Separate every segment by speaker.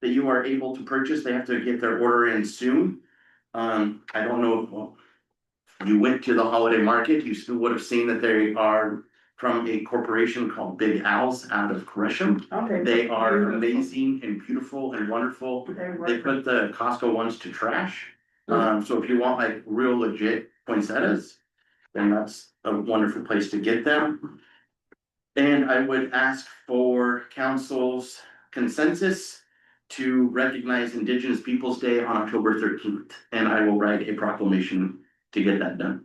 Speaker 1: that you are able to purchase, they have to get their order in soon. Um, I don't know, well, you went to the holiday market, you still would have seen that they are from a corporation called Big Al's out of Gresham.
Speaker 2: Okay.
Speaker 1: They are
Speaker 2: Beautiful.
Speaker 1: amazing and beautiful and wonderful.
Speaker 2: They
Speaker 1: They
Speaker 2: were,
Speaker 1: put the Costco ones to trash.
Speaker 2: Mm-hmm.
Speaker 1: Um, so if you want like real legit poinsettias, then that's a wonderful place to get them. And I would ask for council's consensus to recognize Indigenous Peoples' Day on October thirteenth, and I will write a proclamation to get that done.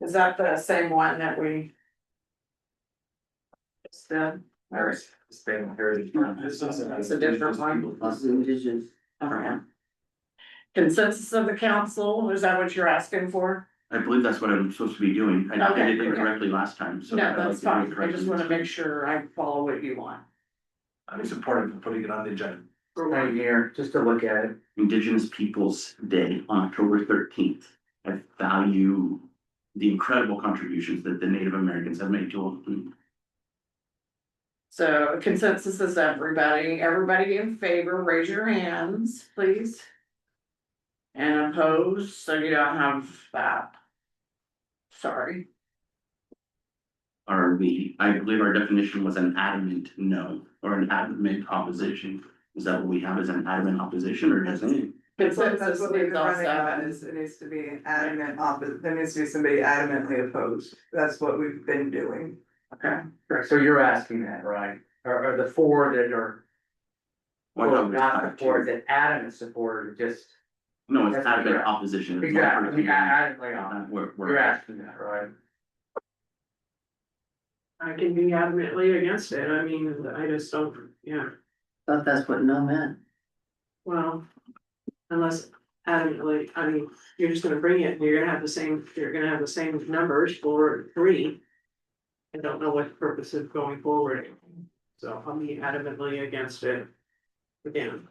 Speaker 2: is that the same one that we? Just did, or is-
Speaker 3: Spain heritage.
Speaker 2: It's a different one.
Speaker 1: Indigenous.
Speaker 2: okay. Consensus of the council, is that what you're asking for?
Speaker 1: I believe that's what I'm supposed to be doing. I I did it
Speaker 2: Okay, okay.
Speaker 1: incorrectly last time, so.
Speaker 2: No,
Speaker 1: I'd like
Speaker 2: that's
Speaker 1: to do it
Speaker 2: fine, I
Speaker 1: correctly
Speaker 2: just
Speaker 1: this
Speaker 2: wanna
Speaker 1: time.
Speaker 2: make sure I follow what you want.
Speaker 3: I'm supportive of putting it on the agenda.
Speaker 4: For one year, just to look at it.
Speaker 1: Indigenous Peoples' Day on October thirteenth. I value the incredible contributions that the Native Americans have made to
Speaker 2: So consensus is everybody, everybody in favor, raise your hands, please. And opposed, so you don't have that. Sorry,
Speaker 1: our, we, I believe our definition was an adamant no or an adamant opposition. Is that what we have as an adamant opposition or just any?
Speaker 2: consensus
Speaker 5: That's what we've
Speaker 2: is
Speaker 5: been
Speaker 2: also.
Speaker 5: running on, is it needs to be adamant opposite, there needs to be somebody adamantly opposed, that's what we've been doing.
Speaker 4: Correct, so you're asking that, right? Or, or the four that are, well, not the four that adamant supported, just.
Speaker 1: No, it's
Speaker 4: That's what
Speaker 1: adamant
Speaker 4: you're-
Speaker 1: opposition. It's not
Speaker 4: Exactly, I mean,
Speaker 1: personally-
Speaker 4: adamantly on,
Speaker 1: not We're,
Speaker 4: you're
Speaker 1: we're,
Speaker 4: asking that, right?
Speaker 6: I can be adamantly against it, I mean, I just don't, yeah,
Speaker 7: Thought that's what no meant.
Speaker 6: well. Unless adamantly, I mean, you're just gonna bring it, and you're gonna have the same, you're gonna have the same numbers for three. I don't know what the purpose of going forward, so I'll be adamantly against it. Again,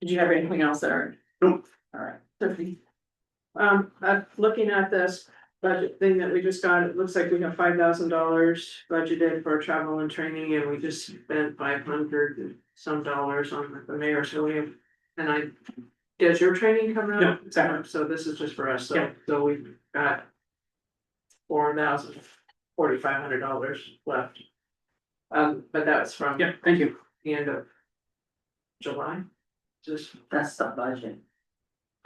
Speaker 2: Did you have anything else, Eric?
Speaker 1: Nope.
Speaker 2: Alright, Tiffany,
Speaker 6: um, uh, looking at this budget thing that we just got, it looks like we have five thousand dollars budgeted for travel and training, and we just spent five hundred and some dollars on the mayor, so we have. And I, does your training come
Speaker 3: Yeah,
Speaker 6: out?
Speaker 3: exactly.
Speaker 6: So this is just for us,
Speaker 3: Yeah.
Speaker 6: so, so we've got four thousand, forty-five hundred dollars left. Um, but that was from
Speaker 3: Yeah, thank you.
Speaker 6: the end of July, just,
Speaker 7: That's the budget.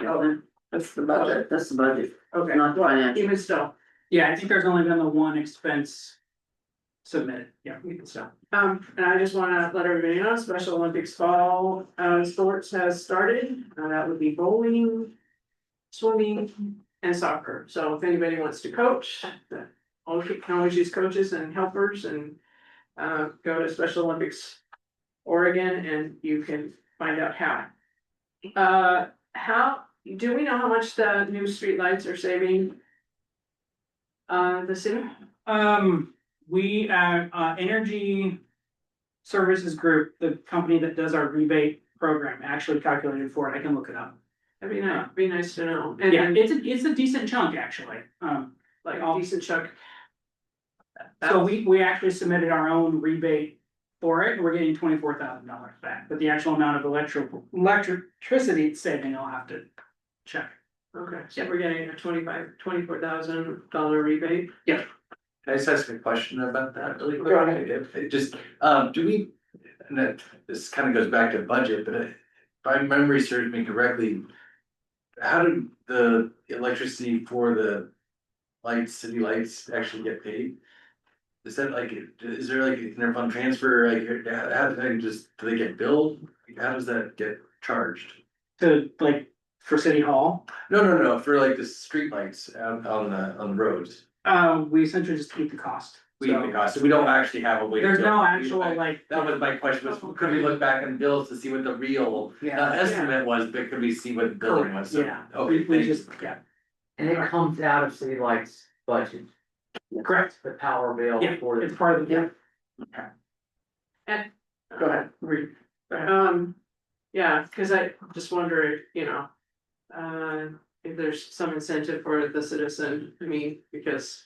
Speaker 6: Oh.
Speaker 2: that's the budget.
Speaker 7: That's the budget,
Speaker 6: okay,
Speaker 7: not the
Speaker 6: well,
Speaker 7: financial.
Speaker 6: even still.
Speaker 3: Yeah, I think there's only been the one expense submitted, yeah.
Speaker 6: we can stop. Um, and I just wanna let everybody know, Special Olympics fall, uh, sports has started, Uh, that would be bowling. Swimming and soccer, so if anybody wants to coach, the, all you can always use coaches and helpers and. Uh, go to Special Olympics Oregon and you can find out how. Uh, how, do we know how much the new streetlights are saving? Uh, the city?
Speaker 3: Um, we, uh, uh, Energy Services Group, the company that does our rebate program, actually calculated for it, I can look it up.
Speaker 6: That'd be nice, be nice to know, and
Speaker 3: Yeah,
Speaker 6: then
Speaker 3: it's a, it's a decent chunk, actually, um,
Speaker 6: like
Speaker 3: I'll-
Speaker 6: decent chunk.
Speaker 3: so we, we actually submitted our own rebate for it, and we're getting twenty-four thousand dollars back, but the actual amount of electric, electricity it's saving, I'll have to check.
Speaker 6: Okay, so we're getting a twenty-five, twenty-four thousand dollar rebate.
Speaker 8: Can I just ask a question about that really quick?
Speaker 6: Go ahead.
Speaker 8: If- it just, um, do we, and that, this kind of goes back to budget, but if my memory serves me correctly. How did the electricity for the lights, city lights actually get paid? Is that like, is there like an interfund transfer, like, how, how do they just, do they get billed? How does that get charged?
Speaker 3: To, like, for City Hall,
Speaker 8: No, no, no, for like the streetlights out on the, on the roads.
Speaker 3: uh, we essentially just keep the cost.
Speaker 8: We,
Speaker 3: So,
Speaker 8: because we don't actually have a way. to
Speaker 3: There's
Speaker 8: bill.
Speaker 3: no
Speaker 8: We-
Speaker 3: actual, like.
Speaker 8: That was my question, was could we look back on bills to see what the real uh,
Speaker 4: Yeah,
Speaker 8: estimate was, but could we see what the billing was? So-
Speaker 3: Yeah,
Speaker 8: Okay,
Speaker 3: we, we
Speaker 8: thank you.
Speaker 3: just, yeah,
Speaker 4: and it comes out of city lights budget,
Speaker 3: correct,
Speaker 4: the power bill
Speaker 3: yeah,
Speaker 4: for
Speaker 3: it's
Speaker 4: the.
Speaker 3: part of the,
Speaker 6: Go ahead, read. Um, yeah, cause I just wonder if, you know, uh, if there's some incentive for the citizen, I mean, because